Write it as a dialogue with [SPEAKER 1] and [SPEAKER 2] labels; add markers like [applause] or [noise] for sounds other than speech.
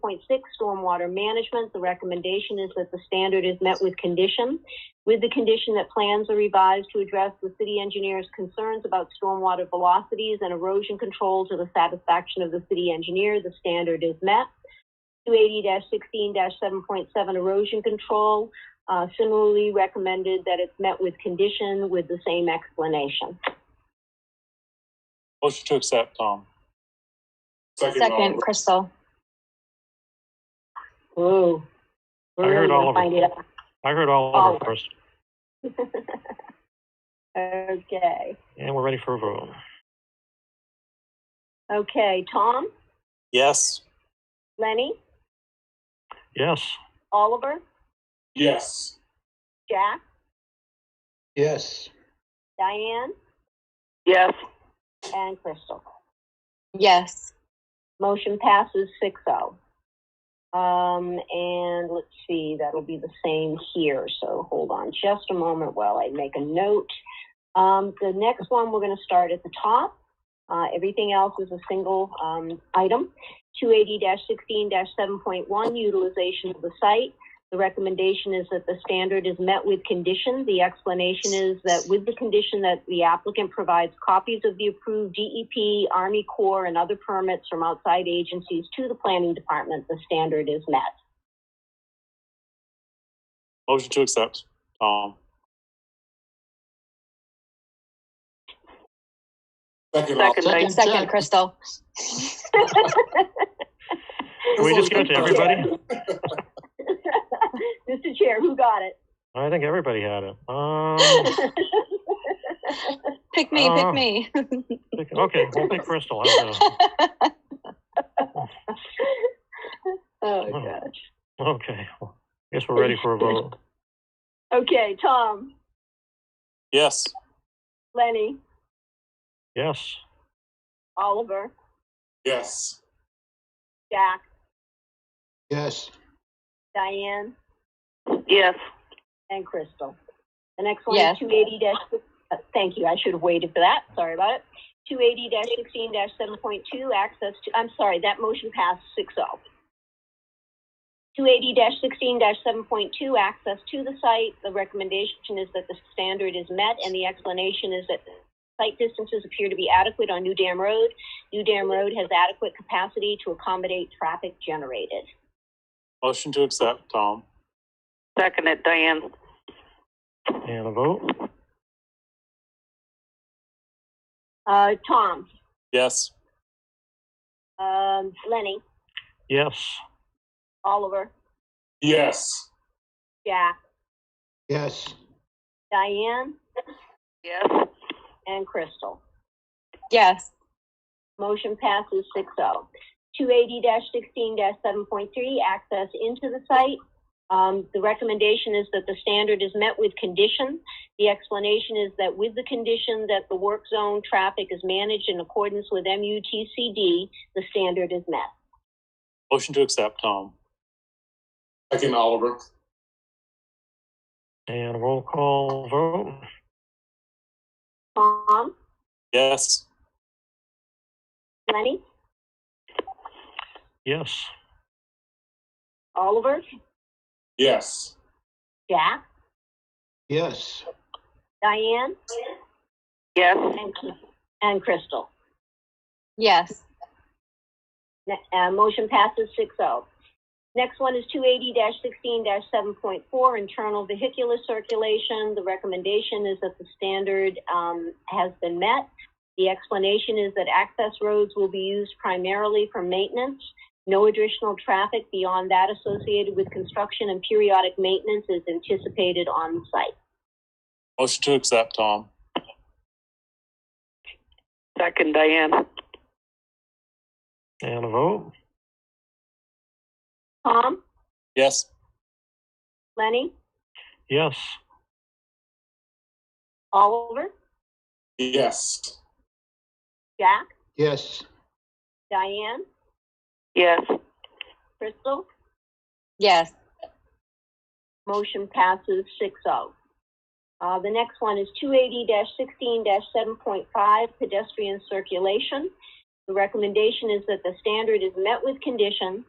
[SPEAKER 1] point six, stormwater management, the recommendation is that the standard is met with condition, with the condition that plans are revised to address the city engineer's concerns about stormwater velocities and erosion control to the satisfaction of the city engineer, the standard is met. Two eighty sixteen seven point seven erosion control, uh, similarly recommended that it's met with condition with the same explanation.
[SPEAKER 2] Motion to accept, Tom.
[SPEAKER 3] Second, Crystal.
[SPEAKER 1] Ooh.
[SPEAKER 2] I heard
[SPEAKER 1] Really
[SPEAKER 2] all of
[SPEAKER 1] gonna
[SPEAKER 2] it.
[SPEAKER 1] find out.
[SPEAKER 2] I heard all of
[SPEAKER 1] Oh.
[SPEAKER 2] it first,
[SPEAKER 1] [laughs] Okay,
[SPEAKER 2] and we're ready for a vote.
[SPEAKER 1] okay, Tom,
[SPEAKER 2] Yes.
[SPEAKER 1] Lenny,
[SPEAKER 2] Yes.
[SPEAKER 1] Oliver,
[SPEAKER 3] Yes.
[SPEAKER 1] Jack,
[SPEAKER 4] Yes.
[SPEAKER 1] Diane,
[SPEAKER 5] yes,
[SPEAKER 1] and Crystal.
[SPEAKER 3] Yes.
[SPEAKER 1] Motion passes six oh. Um, and let's see, that'll be the same here, so hold on just a moment while I make a note. Um, the next one, we're gonna start at the top. Uh, everything else is a single, um, item. Two eighty sixteen seven point one, utilization of the site. The recommendation is that the standard is met with condition. The explanation is that with the condition that the applicant provides copies of the approved DEP, Army Corps, and other permits from outside agencies to the planning department, the standard is met.
[SPEAKER 2] Motion to accept, Tom.
[SPEAKER 5] second, I,
[SPEAKER 3] Second, Crystal.
[SPEAKER 2] Can we just give it to everybody?
[SPEAKER 1] [laughs] Mr. Chair, who got
[SPEAKER 2] [laughs] I think everybody had it. Um,
[SPEAKER 1] it?
[SPEAKER 3] [laughs] Pick me,
[SPEAKER 2] Oh.
[SPEAKER 3] pick me.
[SPEAKER 2] pick- okay, we'll pick Crystal.
[SPEAKER 3] [laughs]
[SPEAKER 2] How's that?
[SPEAKER 1] Oh, gosh.
[SPEAKER 2] Okay, well, I guess we're ready for a vote.
[SPEAKER 1] Okay, Tom,
[SPEAKER 2] Yes.
[SPEAKER 1] Lenny,
[SPEAKER 2] Yes.
[SPEAKER 1] Oliver,
[SPEAKER 3] Yes.
[SPEAKER 1] Jack,
[SPEAKER 4] Yes.
[SPEAKER 1] Diane,
[SPEAKER 5] yes,
[SPEAKER 1] And Crystal. The next one
[SPEAKER 3] Yes.
[SPEAKER 1] is two eighty uh, thank you, I should have waited for that, sorry about it. Two eighty sixteen seven point two, access to, I'm sorry, that motion passed six oh. Two eighty sixteen seven point two, access to the site. The recommendation is that the standard is met and the explanation is that site distances appear to be adequate on New Dam Road. New Dam Road has adequate capacity to accommodate traffic generated.
[SPEAKER 2] Motion to accept, Tom.
[SPEAKER 5] second it, Diane,
[SPEAKER 2] And a vote?
[SPEAKER 1] Uh, Tom,
[SPEAKER 2] Yes.
[SPEAKER 1] um, Lenny,
[SPEAKER 2] Yes.
[SPEAKER 1] Oliver,
[SPEAKER 3] Yes.
[SPEAKER 1] Jack,
[SPEAKER 4] Yes.
[SPEAKER 1] Diane
[SPEAKER 5] yes,
[SPEAKER 1] and Crystal.
[SPEAKER 3] Yes.
[SPEAKER 1] Motion passes 6-0. Two eighty sixteen seven point three, access into the site. Um, the recommendation is that the standard is met with condition. The explanation is that with the condition that the work zone traffic is managed in accordance with MUTCD, the standard is met.
[SPEAKER 2] Motion to accept, Tom.
[SPEAKER 6] Second, Oliver.
[SPEAKER 2] And roll call vote?
[SPEAKER 1] Tom,
[SPEAKER 2] Yes.
[SPEAKER 1] Lenny,
[SPEAKER 2] Yes.
[SPEAKER 1] Oliver,
[SPEAKER 6] Yes.
[SPEAKER 1] Jack,
[SPEAKER 4] Yes.
[SPEAKER 1] Diane,
[SPEAKER 5] yes,
[SPEAKER 1] and, and Crystal.
[SPEAKER 3] Yes.
[SPEAKER 1] Ne- Uh, motion passes 6-0. Next one is two eighty sixteen seven point four, internal vehicular circulation. The recommendation is that the standard, um, has been met. The explanation is that access roads will be used primarily for maintenance. No additional traffic beyond that associated with construction and periodic maintenance is anticipated on site.
[SPEAKER 2] Motion to accept, Tom.
[SPEAKER 5] second, Diane,
[SPEAKER 2] And a vote?
[SPEAKER 1] Tom,
[SPEAKER 2] Yes.
[SPEAKER 1] Lenny,
[SPEAKER 2] Yes.
[SPEAKER 1] Oliver,
[SPEAKER 6] Yes.
[SPEAKER 1] Jack,
[SPEAKER 4] Yes.
[SPEAKER 1] Diane,
[SPEAKER 5] yes,
[SPEAKER 1] Crystal?
[SPEAKER 3] Yes.
[SPEAKER 1] Motion passes 6-0. Uh, the next one is two eighty sixteen seven point five, pedestrian circulation. The recommendation is that the standard is met with condition.